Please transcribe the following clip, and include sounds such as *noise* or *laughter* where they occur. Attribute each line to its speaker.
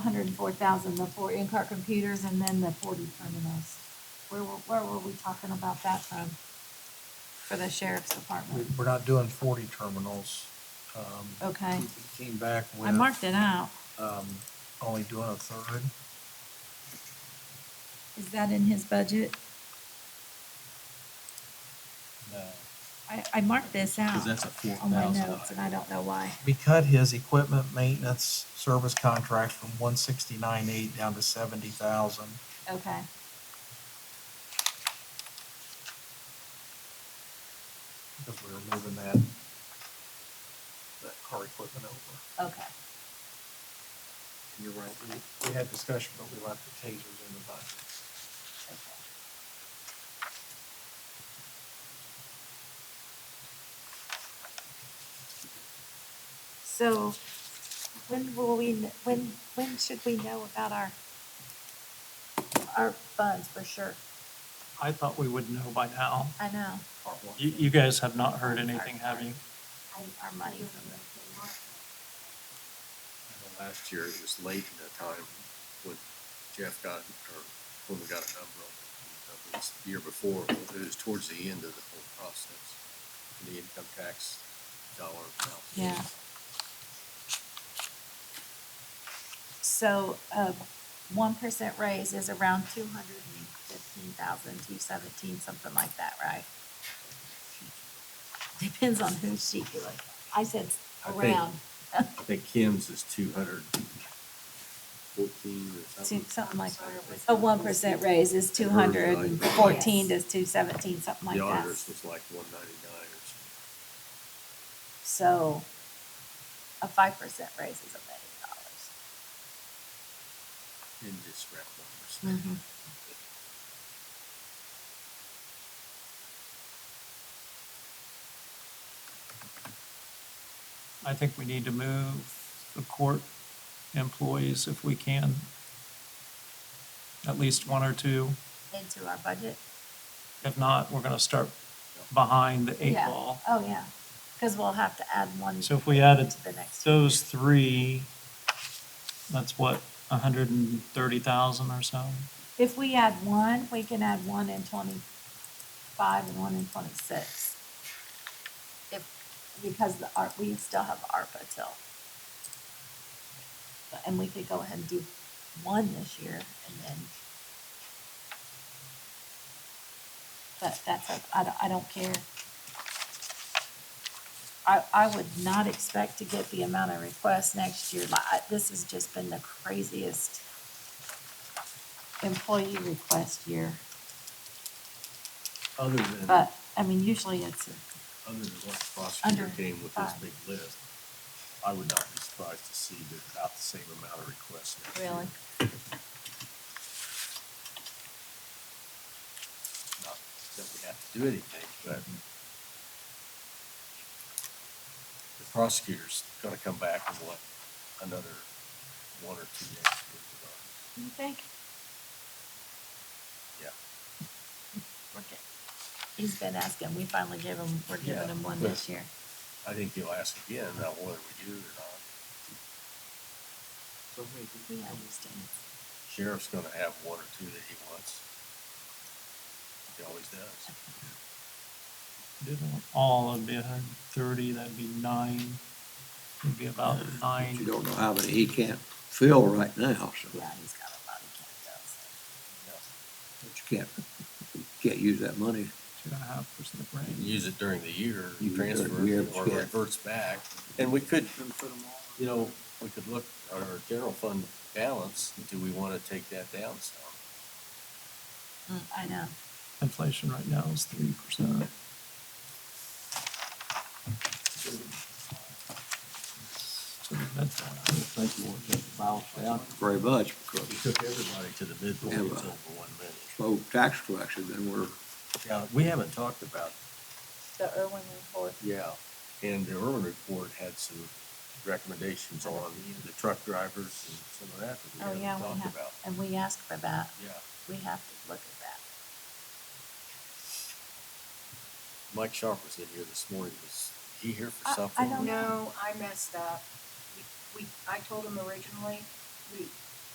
Speaker 1: hundred and four thousand, the four in-car computers and then the forty terminals. Where were, where were we talking about that from? For the sheriff's
Speaker 2: We,
Speaker 1: department,
Speaker 2: we're not doing forty terminals. Um,
Speaker 1: okay,
Speaker 2: we Came back with,
Speaker 1: I marked it out,
Speaker 2: um, only doing a third.
Speaker 1: is that in his budget?
Speaker 2: No.
Speaker 1: I, I marked this out
Speaker 3: Cause that's a four
Speaker 1: on my
Speaker 3: thousand.
Speaker 1: notes and Oh, I don't know why.
Speaker 2: We cut his equipment maintenance service contract from one sixty-nine eight down to seventy thousand.
Speaker 1: Okay.
Speaker 2: Because we were moving that, that car equipment over.
Speaker 1: Okay,
Speaker 2: You're right, we, we had discussion, but we left the tasers in the budget.
Speaker 1: okay. So when will we, kn- when, when should we know about our, our funds for sure?
Speaker 4: I thought we would know by now.
Speaker 1: I know,
Speaker 4: You, you guys have not heard anything, have you?
Speaker 1: I- our money.
Speaker 3: Last year, it was late in the time when Jeff got, or when we got a number on it. It was the year before, it was towards the end of the whole process, the income tax dollar amount.
Speaker 1: Yeah. So, uh, one percent raise is around two hundred and fifteen thousand, two seventeen, something like that, right? *laughs* Depends on whose sheet you look. I said s-
Speaker 3: I think-
Speaker 1: around,
Speaker 3: I think Kim's is two hundred fourteen or
Speaker 1: two,
Speaker 3: something.
Speaker 1: something like, a one percent raise is two hundred and fourteen to two seventeen, something like
Speaker 3: The
Speaker 1: that.
Speaker 3: auditors was like one ninety-nine or something.
Speaker 1: So, a five percent raise is a
Speaker 3: in this round numbers.
Speaker 1: million dollars.
Speaker 4: I think we need to move the court employees if we can. At least one or two.
Speaker 1: Into our budget.
Speaker 4: If not, we're gonna start behind the eight
Speaker 1: Yeah.
Speaker 4: ball.
Speaker 1: Oh, yeah, because we'll have to add one
Speaker 4: So if we added
Speaker 1: to the next.
Speaker 4: those three, that's what, a hundred and thirty thousand or so?
Speaker 1: If we add one, we can add one in twenty-five and one in twenty-six. If, because the art, we still have ARPA till. But- And we could go ahead and do one this year and then. But that's, up- I don't, I don't care. I, I would not expect to get the amount of requests next year. Like, I- this has just been the craziest employee request year,
Speaker 3: Other than, other
Speaker 1: but, I mean, usually it's, a-
Speaker 3: than what the prosecutor
Speaker 1: Under
Speaker 3: came with this
Speaker 1: five.
Speaker 3: big list, I would not be surprised to see that about the same amount of requests. next year.
Speaker 1: Really?
Speaker 3: Not that we have to do anything, but
Speaker 1: Mm-hmm.
Speaker 3: the prosecutor's gonna come back and what, another one or two next year.
Speaker 1: you think?
Speaker 3: Yeah.
Speaker 1: We're get- He's been asking, we finally gave him, we're giving
Speaker 3: Yeah,
Speaker 1: him one
Speaker 3: but-
Speaker 1: this year.
Speaker 3: I think he'll ask again about whether we do or not. So
Speaker 1: He understands.
Speaker 3: Sheriff's gonna have one or two that he wants. He always does.
Speaker 4: Did all, it'd be a hundred and thirty, that'd be nine, it'd be about nine.
Speaker 5: You don't know how many he can't fill right now, so,
Speaker 1: Yeah, he's got a lot of cats,
Speaker 5: but you can't, you can't use that money.
Speaker 4: two and a half percent range.
Speaker 3: Use it during the year,
Speaker 5: Use it
Speaker 3: transfer
Speaker 5: during the year,
Speaker 3: it or
Speaker 5: yeah.
Speaker 3: reverts back. And we could, you know, we could look at our general fund balance. Do we wanna take that down some?
Speaker 1: so. Mm, I know,
Speaker 4: Inflation right now is three percent.
Speaker 5: Very much, because
Speaker 3: We took everybody to the midpoint
Speaker 5: Yeah,
Speaker 3: over
Speaker 5: but-
Speaker 3: one minute.
Speaker 5: slow tax collection, then we're,
Speaker 3: Yeah, we haven't talked about
Speaker 1: the Irwin report,
Speaker 3: Yeah, and the Irwin report had some recommendations on the truck drivers and some of that
Speaker 1: Oh,
Speaker 3: that we
Speaker 1: yeah,
Speaker 3: haven't
Speaker 1: we
Speaker 3: talked
Speaker 1: have.
Speaker 3: about.
Speaker 1: and we asked for that,
Speaker 3: Yeah,
Speaker 1: we have to look at that.
Speaker 3: Mike Sharp was in here this morning, was he here for
Speaker 1: I- I
Speaker 3: something?
Speaker 1: don't-
Speaker 6: No, I messed up. We, we, I told him originally, we,